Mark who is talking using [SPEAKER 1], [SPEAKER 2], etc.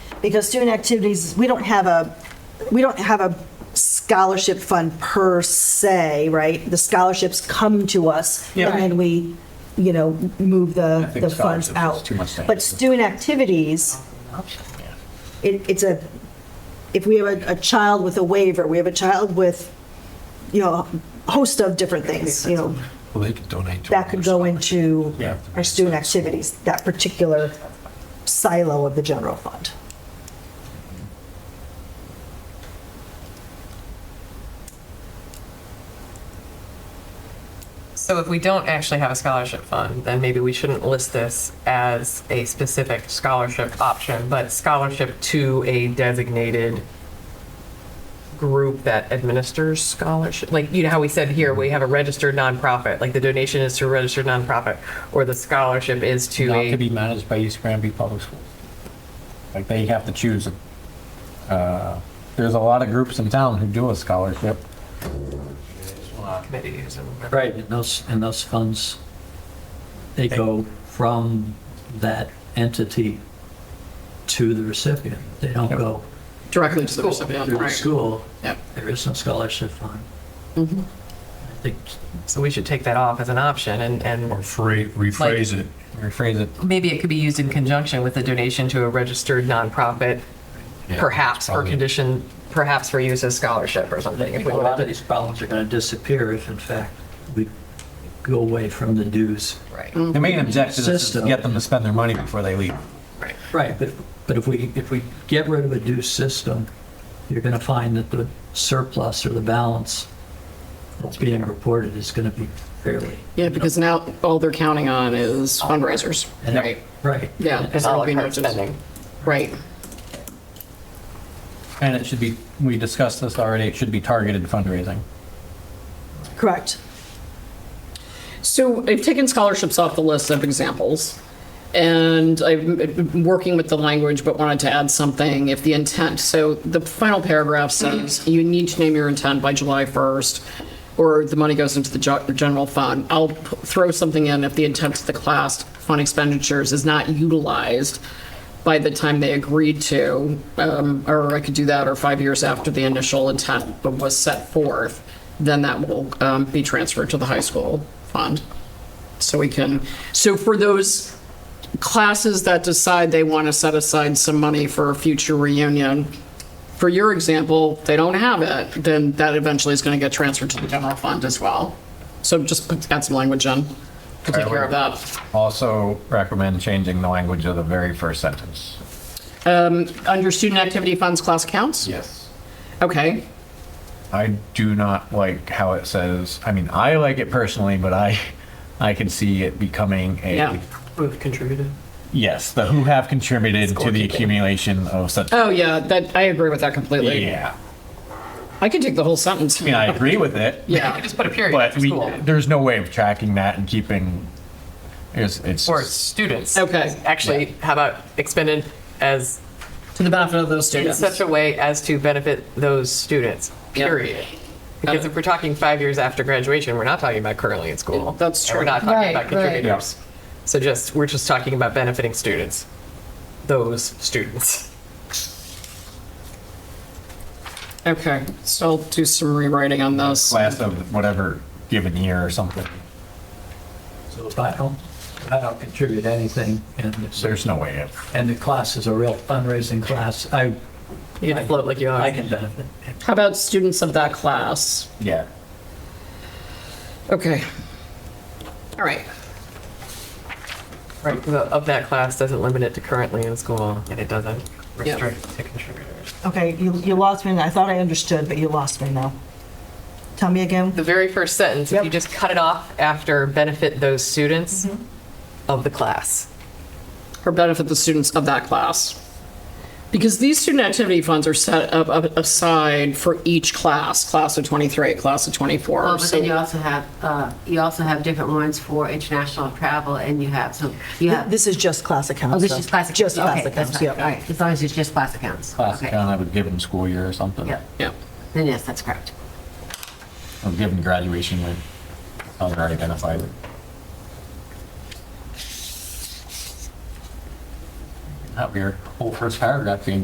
[SPEAKER 1] because student activities, we don't have a, we don't have a scholarship fund per se, right? The scholarships come to us,
[SPEAKER 2] Yeah.
[SPEAKER 1] and then we, you know, move
[SPEAKER 3] I
[SPEAKER 1] the,
[SPEAKER 3] think
[SPEAKER 1] the funds
[SPEAKER 3] scholarships is
[SPEAKER 1] out.
[SPEAKER 3] too much to
[SPEAKER 1] But
[SPEAKER 3] handle.
[SPEAKER 1] student activities, it, it's a, if we have a, a child with a waiver, we have a child with, you know, a host of different things, you know,
[SPEAKER 4] Well, they could donate to.
[SPEAKER 1] that could go into
[SPEAKER 3] Yeah.
[SPEAKER 1] our student activities, that particular silo of the general fund.
[SPEAKER 2] So if we don't actually have a scholarship fund, then maybe we shouldn't list this as a specific scholarship option, but scholarship to a designated group that administers scholarship. Like, you know how we said here, we have a registered nonprofit, like the donation is to a registered nonprofit, or the scholarship is to
[SPEAKER 3] Not to
[SPEAKER 2] a,
[SPEAKER 3] be managed by East Granby Public Schools. Like, they have to choose. Uh, There's a lot of groups in town who do a scholarship.
[SPEAKER 2] committees and whatever.
[SPEAKER 5] Right, and those, and those funds, they go from that entity to the recipient. They don't go
[SPEAKER 6] Directly to the
[SPEAKER 5] to
[SPEAKER 6] recipient,
[SPEAKER 5] the
[SPEAKER 6] right?
[SPEAKER 5] school.
[SPEAKER 6] Yep. Mm-hmm.
[SPEAKER 5] There is no scholarship fund. I think
[SPEAKER 2] So we should take that off as an option and, and
[SPEAKER 4] Or free, rephrase it.
[SPEAKER 3] Rephrase it.
[SPEAKER 2] maybe it could be used in conjunction with a donation to a registered nonprofit,
[SPEAKER 4] Yeah,
[SPEAKER 2] perhaps, or
[SPEAKER 4] probably-
[SPEAKER 2] condition, perhaps for use as scholarship or something. if
[SPEAKER 5] a
[SPEAKER 2] we
[SPEAKER 5] lot
[SPEAKER 2] wanted
[SPEAKER 5] of these problems are going to disappear if in fact we go away from the dues.
[SPEAKER 2] to- Right,
[SPEAKER 3] The main objective is to
[SPEAKER 5] System.
[SPEAKER 3] get them to spend their money before they leave.
[SPEAKER 2] right.
[SPEAKER 5] Right, but, but if we, if we get rid of a due system, you're going to find that the surplus or the balance that's being reported is going to be fairly.
[SPEAKER 6] Yeah, because now all they're counting on is fundraisers,
[SPEAKER 5] and-
[SPEAKER 6] right?
[SPEAKER 5] Right.
[SPEAKER 6] Yeah. because there
[SPEAKER 2] All
[SPEAKER 6] will be no
[SPEAKER 2] our
[SPEAKER 6] just-
[SPEAKER 2] spending.
[SPEAKER 6] Right.
[SPEAKER 3] And it should be, we discussed this already, it should be targeted fundraising.
[SPEAKER 1] Correct.
[SPEAKER 6] So I've taken scholarships off the list of examples, and I'm I'm working with the language, but wanted to add something if the intent, so the final paragraph says, you need to name your intent by July 1st, or the money goes into the jo- general fund. I'll p- throw something in if the intent of the class fund expenditures is not utilized by the time they agreed to, um, or I could do that, or five years after the initial intent was set forth, then that will um, be transferred to the high school fund. So we can, so for those classes that decide they want to set aside some money for a future reunion, for your example, they don't have it, then that eventually is going to get transferred to the general fund as well. So just put- add some language in to take care of that.
[SPEAKER 3] Also recommend changing the language of the very first sentence.
[SPEAKER 6] Um, Under student activity funds, class accounts?
[SPEAKER 3] Yes.
[SPEAKER 6] Okay.
[SPEAKER 3] I do not like how it says, I mean, I like it personally, but I, I can see it becoming
[SPEAKER 6] Yeah.
[SPEAKER 3] a,
[SPEAKER 2] We've contributed.
[SPEAKER 3] yes, the who have contributed to the accumulation of such.
[SPEAKER 2] Uh,
[SPEAKER 6] Oh, yeah, that, I agree with that completely.
[SPEAKER 3] Yeah,
[SPEAKER 6] I could take the whole sentence.
[SPEAKER 3] I mean, I agree with it.
[SPEAKER 2] You could
[SPEAKER 6] Yeah,
[SPEAKER 2] just put a period
[SPEAKER 3] But
[SPEAKER 2] for
[SPEAKER 3] we,
[SPEAKER 2] school.
[SPEAKER 3] there's no way of tracking that and keeping, it's, it's.
[SPEAKER 2] Or students.
[SPEAKER 6] Okay.
[SPEAKER 2] Actually, how about expended as,
[SPEAKER 6] to the benefit of those
[SPEAKER 2] in
[SPEAKER 6] students.
[SPEAKER 2] such a way as to benefit those students,
[SPEAKER 6] Yeah.
[SPEAKER 2] period. Because if we're talking five years after graduation, we're not talking about currently in school.
[SPEAKER 6] That's
[SPEAKER 2] And We're
[SPEAKER 6] true.
[SPEAKER 2] not talking
[SPEAKER 6] Right,
[SPEAKER 2] about
[SPEAKER 6] right.
[SPEAKER 2] contributors. So just, we're just talking about benefiting students, those students.
[SPEAKER 6] Okay, so I'll do some rewriting on this.
[SPEAKER 3] Class of whatever given year or something.
[SPEAKER 5] So if I don't, if I don't contribute anything and it's-
[SPEAKER 3] There's no way of,
[SPEAKER 5] and the class is a real fundraising class, I,
[SPEAKER 2] You can float like you
[SPEAKER 5] I
[SPEAKER 2] are.
[SPEAKER 5] can benefit.
[SPEAKER 6] How about students of that class?
[SPEAKER 3] yeah.
[SPEAKER 6] Okay. All right.
[SPEAKER 2] Right, the- of that class doesn't limit it to currently in school, and it doesn't
[SPEAKER 6] Yeah.
[SPEAKER 2] restrict it to contributors.
[SPEAKER 1] Okay, you, you lost me. I thought I understood, but you lost me now. Tell me again.
[SPEAKER 2] The very first sentence, if you
[SPEAKER 1] Yep.
[SPEAKER 2] just cut it off after benefit those students of the class.
[SPEAKER 6] Or benefit the students of that class. Because these student activity funds are set up up- aside for each class, class of 23, class of 24.
[SPEAKER 7] Well, Oh, but
[SPEAKER 6] so-
[SPEAKER 7] then you also have, uh, you also have different ones for international travel and you have, so you have.
[SPEAKER 1] This is just class accounts.
[SPEAKER 7] Oh, this
[SPEAKER 1] though.
[SPEAKER 7] is classic.
[SPEAKER 1] Just class
[SPEAKER 7] Okay, that's
[SPEAKER 1] accounts,
[SPEAKER 7] fine.
[SPEAKER 1] yep.
[SPEAKER 7] All right, as long as it's just class accounts.
[SPEAKER 3] Class
[SPEAKER 7] Okay.
[SPEAKER 3] account of a given school year or something.
[SPEAKER 7] Yep,
[SPEAKER 6] Yeah.
[SPEAKER 7] then yes, that's correct.
[SPEAKER 3] Or given graduation year. Other identified. Oh. That weird, whole first paragraph being